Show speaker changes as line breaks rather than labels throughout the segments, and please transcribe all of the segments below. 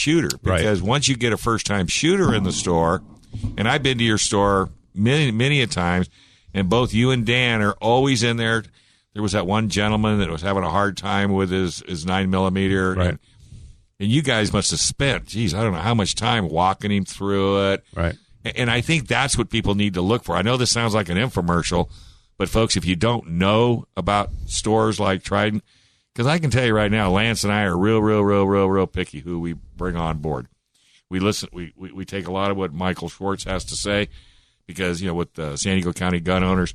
shooter
Right.
because once you get a first time shooter in the store, and I've been to your store many many a times, and both you and Dan are always in there. There was that one gentleman that was having a hard time with his his nine millimeter,
Right.
and, and you guys must have spent, geez, I don't know how much time walking him through it,
Right.
and I think that's what people need to look for. I know this sounds like an infomercial, but folks, if you don't know about stores like Trident, because I can tell you right now, Lance and I are real, real, real, real, real picky who we bring on board. We listen, we, we, we take a lot of what Michael Schwartz has to say because, you know, with the San Diego County gun owners,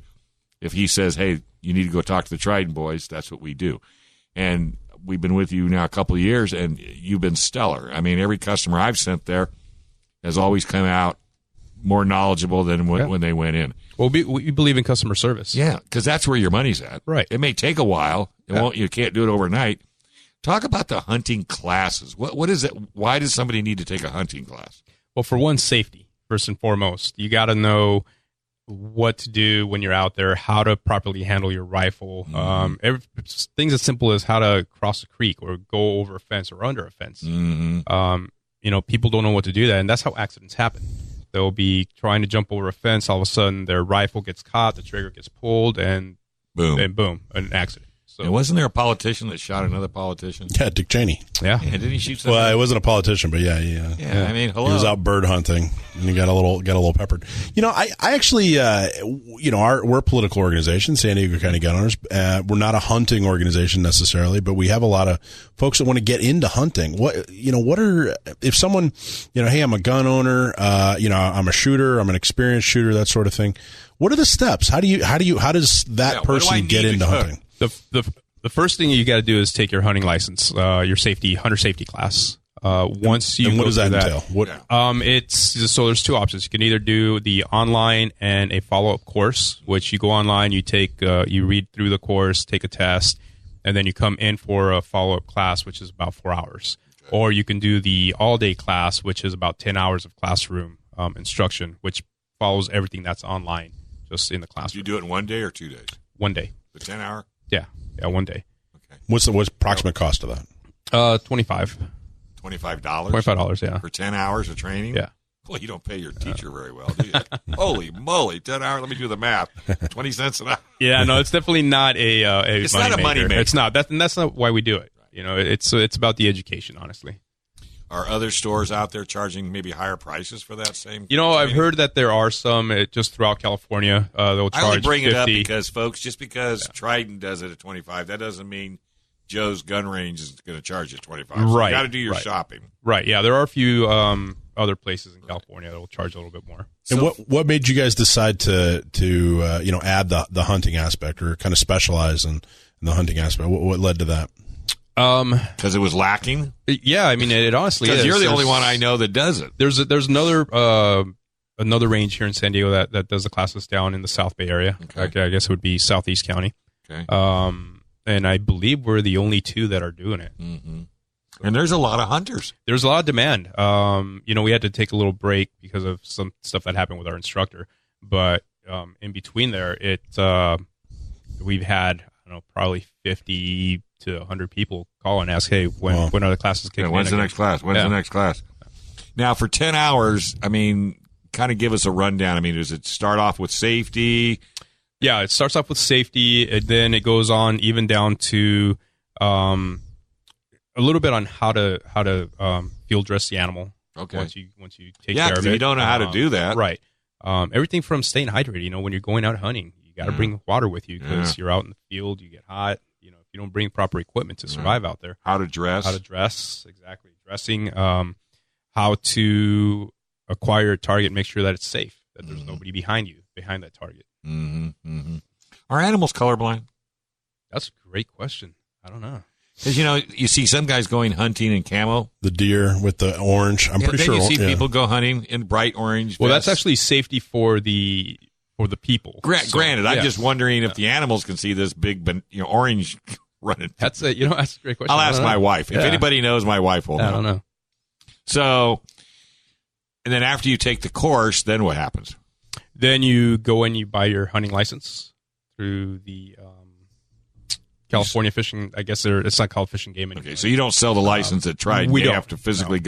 if he says, hey, you need to go talk to the Trident boys, that's what we do. And we've been with you now a couple of years and you've been stellar. I mean, every customer I've sent there has always come out more knowledgeable than when,
Yeah.
when they went in.
Well, we, we believe in customer service.
Yeah, because that's where your money's at.
Right.
It may take a while. It
Yeah.
won't. You can't do it overnight. Talk about the hunting classes. What what is it? Why does somebody need to take a hunting class?
Well, for one, safety first and foremost. You got to know what to do when you're out there, how to properly handle your rifle.
Mm-hmm.
Um, every, it's things as simple as how to cross a creek or go over a fence or under a fence.
Mm-hmm.
Um, you know, people don't know what to do that, and that's how accidents happen. They'll be trying to jump over a fence. All of a sudden, their rifle gets caught, the trigger gets pulled, and
Boom.
and boom, an accident. So
and wasn't there a politician that shot another politician?
Yeah, Dick Cheney.
yeah,
Yeah, didn't he shoot somebody?
Well, he wasn't a politician, but yeah, yeah.
yeah, I mean, hello.
He was out bird hunting and he got a little got a little peppered. You know, I I actually uh, w- you know our we're a political organization, San Diego County Gun Owners. Uh, we're not a hunting organization necessarily, but we have a lot of folks that want to get into hunting. What you know, what are if someone you know, hey, I'm a gun owner, uh, you know, I'm a shooter, I'm an experienced shooter, that sort of thing. What are the steps? How do you how do you how does that
Yeah, what do I
person
need
get
to
into
cook?
hunting?
the the the first thing you got to do is take your hunting license, uh, your safety hunter safety class. Uh, once you
and what
go
does that
through
entail? What
Um, it's so there's two options. You can either do the online and a follow up course, which you go online, you take, uh, you read through the course, take a test, and then you come in for a follow up class, which is about four hours. Or you can do the all day class, which is about ten hours of classroom um, instruction, which follows everything that's online, just in the
Did you
classroom.
do it in one day or two days?
One day,
The ten hour.
yeah, yeah, one day.
what's the what's proximate cost of that?
Uh, twenty five.
Oh, Twenty five dollars.
Twenty five dollars, yeah.
for ten hours of training.
Yeah.
Well, you don't pay your teacher very well, do you? Holy moly, ten hours. Let me do the math. Twenty cents an hour.
Yeah, no, it's definitely not a. Uh, a
It's not a
moneymaker.
moneymaker.
It's not. That, and that's not why we do it. You know, it's it's about the education, honestly.
Are other stores out there charging maybe higher prices for that same?
You know, I've
training?
heard that there are some uh, just throughout California. Uh, they'll charge
I only bring
50.
it up because, folks, just because Trident does it at twenty five, that doesn't mean Joe's gun range is going to charge you twenty five.
Right,
you got to do your
right.
shopping.
right? Yeah, there are a few um, other places in California that will charge a little bit more.
And
So-
what what made you guys decide to to uh, you know add the the hunting aspect or kind of specialize in, in the hunting aspect? What, what led to that?
Um,
Because it was lacking.
yeah, I mean, it, it honestly
Because
is.
you're the
There's-
only one I know that does it.
There's a, there's another uh, another range here in San Diego that, that does the classes down in the South Bay area.
Okay.
Okay, I guess it would be Southeast County.
Okay.
Um, and I believe we're the only two that are doing it.
Mm-hmm. And there's a lot of hunters.
there's a lot of demand. Um, you know, we had to take a little break because of some stuff that happened with our instructor, but um, in between there, it uh, we've had I don't know probably fifty to hundred people call and ask, hey, when
Wow.
when are the classes kicking?
Yeah, when's
in
the
again?
next class? When's
Yeah.
the next class? Now, for 10 hours, I mean, kind of give us a rundown. I mean, does it start off with safety?
Yeah, it starts off with safety, and then it goes on even down to um, a little bit on how to how to um, field dress the animal.
Okay.
once you once you take
Yeah,
care of
'cause
it.
you don't know how to
Um,
do that.
right? Um, everything from staying hydrated. You know, when you're going out hunting, you got to
Yeah.
bring water with you because you're out in the field. You get hot. You know, if you don't bring proper equipment to survive out there,
How to dress?
how to dress exactly, dressing, um, how to acquire a target, make sure that it's safe, that there's
Mm-hmm.
nobody behind you behind that target.
hmm hmm Are animals colorblind?
That's a great question. I don't know.
Because, you know, you see some guys going hunting in camo.
The deer with the orange. I'm
Yeah,
pretty
then
sure.
you see
yeah.
people go hunting in bright orange.
Well, that's
vests.
actually safety for the for the people.
Gra-
So,
granted, I'm
yeah.
just wondering if the animals can see this big, ban- you know, orange running.
that's a you know that's a great question.
I'll
I
ask
don't
my
know.
wife. If
Yeah.
anybody knows, my wife will
I
know.
don't know.
So, and then after you take the course, then what happens?
Then you go and you buy your hunting license through the um, California fishing. I guess they're, it's not called fishing game anymore.
Okay, so you don't sell the license at Trident.
we
you
don't.
have to physically